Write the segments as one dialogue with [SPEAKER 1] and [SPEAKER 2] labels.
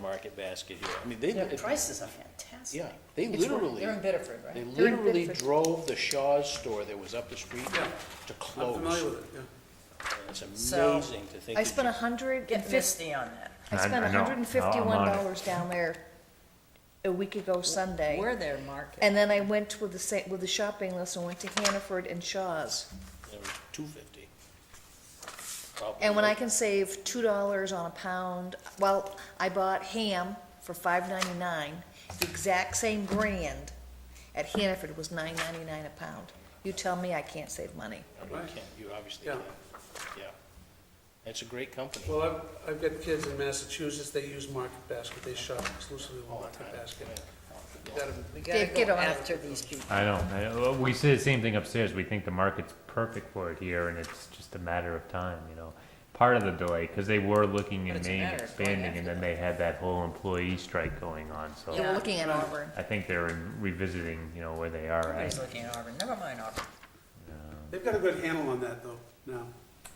[SPEAKER 1] market basket here. I mean, they,
[SPEAKER 2] Their
[SPEAKER 1] if-
[SPEAKER 2] prices are fantastic.
[SPEAKER 1] yeah, they
[SPEAKER 2] It's wor-
[SPEAKER 1] literally,
[SPEAKER 2] They're in Bedford,
[SPEAKER 1] they
[SPEAKER 2] right?
[SPEAKER 3] They're in
[SPEAKER 1] literally
[SPEAKER 3] Bedford.
[SPEAKER 1] drove the Shaw's store that was up the street
[SPEAKER 4] Yeah.
[SPEAKER 1] to
[SPEAKER 4] I'm
[SPEAKER 1] close.
[SPEAKER 4] familiar with it, yeah.
[SPEAKER 1] It's
[SPEAKER 2] So-
[SPEAKER 1] amazing to think.
[SPEAKER 3] I
[SPEAKER 1] that
[SPEAKER 3] spent
[SPEAKER 1] you-
[SPEAKER 3] a hundred and
[SPEAKER 2] Get
[SPEAKER 3] fifty,
[SPEAKER 2] fifty on that.
[SPEAKER 3] I
[SPEAKER 5] I-
[SPEAKER 3] spent
[SPEAKER 5] I know.
[SPEAKER 3] hundred and fifty-one
[SPEAKER 5] Now I'm on
[SPEAKER 3] dollars down there a week ago Sunday.
[SPEAKER 2] We're their market.
[SPEAKER 3] And then I went with the sa with the shopping list and went to Hannaford and Shaw's.
[SPEAKER 1] It was two fifty.
[SPEAKER 3] And when I can save two dollars on a pound, well, I bought ham for five ninety-nine, the exact same brand at Hannaford was nine ninety-nine a pound. You tell me I can't save money.
[SPEAKER 1] You can't, you obviously
[SPEAKER 4] Yeah.
[SPEAKER 1] can't, yeah. It's a great company.
[SPEAKER 4] Well, I've, I've got kids in Massachusetts, they use Market Basket, they shop exclusively with Market Basket. You gotta-
[SPEAKER 2] We gotta
[SPEAKER 3] Dave, get
[SPEAKER 2] go
[SPEAKER 3] on it.
[SPEAKER 2] after these people.
[SPEAKER 5] I don't, I- uh, we say the same thing upstairs, we think the market's perfect for it here, and it's just a matter of time, you know? Part of the delay, because they were looking
[SPEAKER 2] But
[SPEAKER 5] in
[SPEAKER 2] it's a
[SPEAKER 5] Maine
[SPEAKER 2] matter of going
[SPEAKER 5] expanding, and
[SPEAKER 2] after
[SPEAKER 5] then they had that whole employee strike going on,
[SPEAKER 3] You
[SPEAKER 5] so
[SPEAKER 3] were looking at Auburn.
[SPEAKER 5] I think they're revisiting, you know, where they are
[SPEAKER 2] Everybody's
[SPEAKER 5] at.
[SPEAKER 2] looking at Auburn, never mind Auburn.
[SPEAKER 4] They've got a good handle on that, though, now.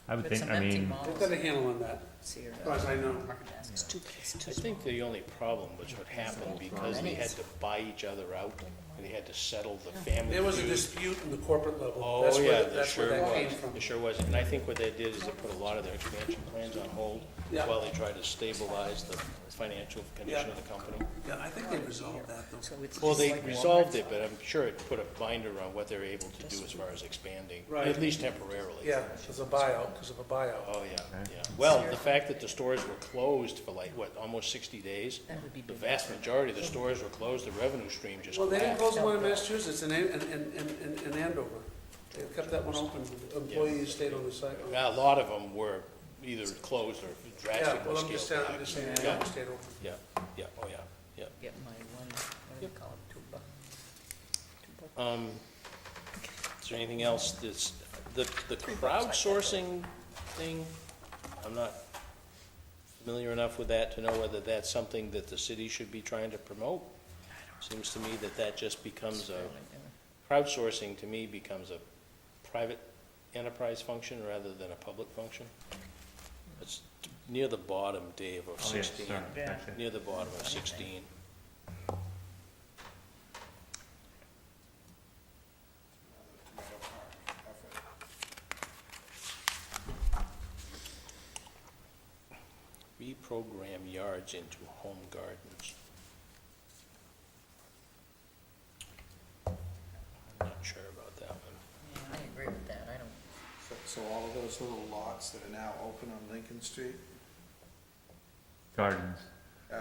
[SPEAKER 5] I would
[SPEAKER 2] Got
[SPEAKER 5] think,
[SPEAKER 2] some
[SPEAKER 5] I
[SPEAKER 2] empty
[SPEAKER 5] mean,
[SPEAKER 2] malls.
[SPEAKER 4] They've got a handle on that,
[SPEAKER 2] See your-
[SPEAKER 4] as far as I know.
[SPEAKER 2] Market baskets.
[SPEAKER 3] It's too, it's
[SPEAKER 1] I
[SPEAKER 3] too small.
[SPEAKER 1] think the only problem was what happened because they had to buy each other out and they had to settle the family.
[SPEAKER 4] There was a
[SPEAKER 1] feud.
[SPEAKER 4] dispute in the corporate level. That's
[SPEAKER 1] Oh,
[SPEAKER 4] where
[SPEAKER 1] yeah,
[SPEAKER 4] the-
[SPEAKER 1] there
[SPEAKER 4] that's where
[SPEAKER 1] sure
[SPEAKER 4] that came
[SPEAKER 1] was.
[SPEAKER 4] from.
[SPEAKER 1] There sure was. And I think what they did is they put a lot of their expansion plans on hold
[SPEAKER 4] Yeah.
[SPEAKER 1] while they tried to stabilize the financial condition of the company.
[SPEAKER 4] Yeah, I think they resolved that, though.
[SPEAKER 2] So it's
[SPEAKER 1] Well,
[SPEAKER 2] just
[SPEAKER 1] they
[SPEAKER 2] like
[SPEAKER 1] resolved
[SPEAKER 2] Walmart's.
[SPEAKER 1] it, but I'm sure it put a binder on what they're able to do as far as expanding,
[SPEAKER 4] Right.
[SPEAKER 1] at least temporarily.
[SPEAKER 4] Yeah, because of buyout, because of a buyout.
[SPEAKER 1] Oh, yeah, yeah. Well, the fact that the stores were closed for like, what, almost sixty days? The vast majority of the stores were closed, the revenue stream just
[SPEAKER 4] Well, they didn't
[SPEAKER 1] collapsed.
[SPEAKER 4] close the one in Massachusetts and, and, and, and- and Andover. They kept that one open, employees stayed on the site.
[SPEAKER 1] Now, A lot of them were either closed or
[SPEAKER 4] Yeah,
[SPEAKER 1] drastically
[SPEAKER 4] well, I'm just,
[SPEAKER 1] scaled
[SPEAKER 4] saying- I'm
[SPEAKER 1] back.
[SPEAKER 4] just saying,
[SPEAKER 1] Yeah.
[SPEAKER 4] Andover stayed open.
[SPEAKER 1] Yeah, yeah, oh, yeah, yeah.
[SPEAKER 2] Get my one, what do you call it, tuba?
[SPEAKER 1] Um, Is there anything else that's, the, the crowdsourcing thing, I'm not familiar enough with that to know whether that's something that the city should be trying to promote. Seems to me that that just becomes a, crowdsourcing to me becomes a private enterprise function rather than a public function. It's near the bottom, Dave, of
[SPEAKER 5] oh, yeah,
[SPEAKER 1] sixteen,
[SPEAKER 5] sorry, actually.
[SPEAKER 1] near the bottom of sixteen. Reprogram yards into home gardens. I'm not sure about that one.
[SPEAKER 2] Yeah, I agree with that, I don't,
[SPEAKER 6] So- So all of those little lots that are now open on Lincoln Street,
[SPEAKER 5] Gardens,
[SPEAKER 6] uh,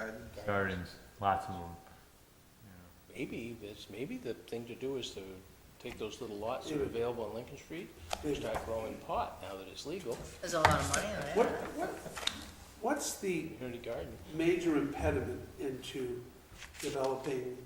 [SPEAKER 5] gardens, lots of them.
[SPEAKER 1] Maybe, it's, maybe the thing to do is to take those little lots that are available on Lincoln Street, and start growing pot now that it's legal,
[SPEAKER 2] there's a lot of money in
[SPEAKER 4] What,
[SPEAKER 2] that.
[SPEAKER 4] what, what's the
[SPEAKER 1] community garden.
[SPEAKER 4] major impediment into developing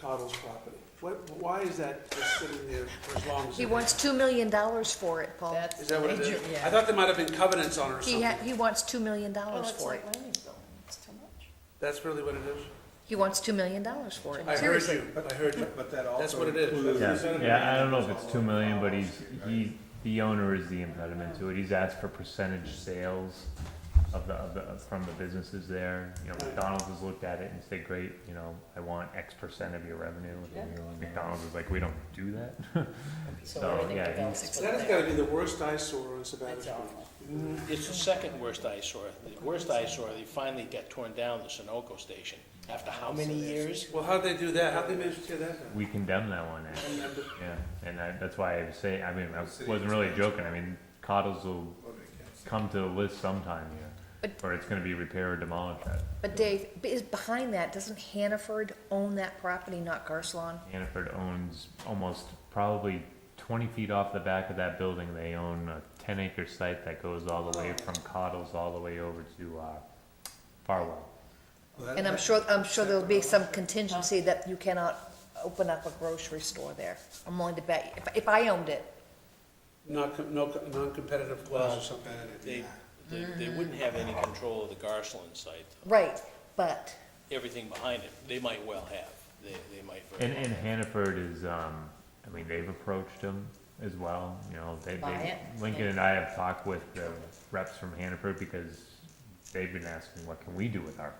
[SPEAKER 4] Cottle's property? What, why is that just sitting there for as long as?
[SPEAKER 3] He
[SPEAKER 4] it
[SPEAKER 3] wants two million dollars for it, Paul.
[SPEAKER 2] That's
[SPEAKER 4] is? Is that what it
[SPEAKER 2] major-
[SPEAKER 4] is? I
[SPEAKER 2] Yeah.
[SPEAKER 4] thought there might have been covenants on it or
[SPEAKER 3] He
[SPEAKER 4] something.
[SPEAKER 3] ha, he wants two million
[SPEAKER 2] Oh,
[SPEAKER 3] dollars
[SPEAKER 2] it's
[SPEAKER 3] for it.
[SPEAKER 2] like landing zone, it's too much.
[SPEAKER 4] That's really what it is?
[SPEAKER 3] He wants two million dollars for
[SPEAKER 4] I
[SPEAKER 3] it.
[SPEAKER 4] heard
[SPEAKER 3] Seriously.
[SPEAKER 4] you, I heard you.
[SPEAKER 6] but that
[SPEAKER 4] That's
[SPEAKER 6] also
[SPEAKER 4] what it is.
[SPEAKER 6] includes.
[SPEAKER 5] Yeah, yeah, I don't know if it's two million, but he's, he, the owner is the impediment to it, he's asked for percentage sales of the, of the, from the businesses there, you know, McDonald's has looked at it and said, great, you know, I want X percent of your revenue, And McDonald's is like, we don't do that. So,
[SPEAKER 2] everything
[SPEAKER 5] Oh, yeah,
[SPEAKER 2] develops
[SPEAKER 5] he's-
[SPEAKER 2] with
[SPEAKER 4] That has
[SPEAKER 2] that.
[SPEAKER 4] gotta be the worst eyesore Mm-hmm. on Sabbath
[SPEAKER 2] It's
[SPEAKER 4] Street.
[SPEAKER 2] awful.
[SPEAKER 1] It's the second worst eyesore, the worst eyesore, they finally got torn down, the Sunoco station, after how many years?
[SPEAKER 4] Well, how'd they do that? How'd they manage to tear that down?
[SPEAKER 5] We condemn that one, actually,
[SPEAKER 4] Remember?
[SPEAKER 5] yeah, and I, that's why I was saying, I mean, I wasn't really joking, I mean, Cottles will come to the list sometime here,
[SPEAKER 3] But-
[SPEAKER 5] or it's gonna be repair or demolish that,
[SPEAKER 3] But Dave, b- is behind that, doesn't Hannaford own that property, not Garcelon?
[SPEAKER 5] Hannaford owns almost probably twenty feet off the back of that building, they own a ten acre site that goes all the way
[SPEAKER 2] Oh.
[SPEAKER 5] from Cottles all the way over to, uh, Farwell.
[SPEAKER 3] And I'm sure, I'm sure there'll be some contingency that you cannot open up a grocery store there. I'm willing to bet, if, if I owned it,
[SPEAKER 4] Not, com- no, co- non-competitive clause or something.
[SPEAKER 1] They, they, they wouldn't have any control of the Garceland site,
[SPEAKER 3] right, but
[SPEAKER 1] everything behind it, they might well have, they, they might very
[SPEAKER 5] And, and Hannaford is, um, I mean, they've approached him as well, you know, they,
[SPEAKER 2] Buy
[SPEAKER 5] they,
[SPEAKER 2] it?
[SPEAKER 5] Lincoln and I have talked with the reps from Hannaford because they've been asking, what can we do with our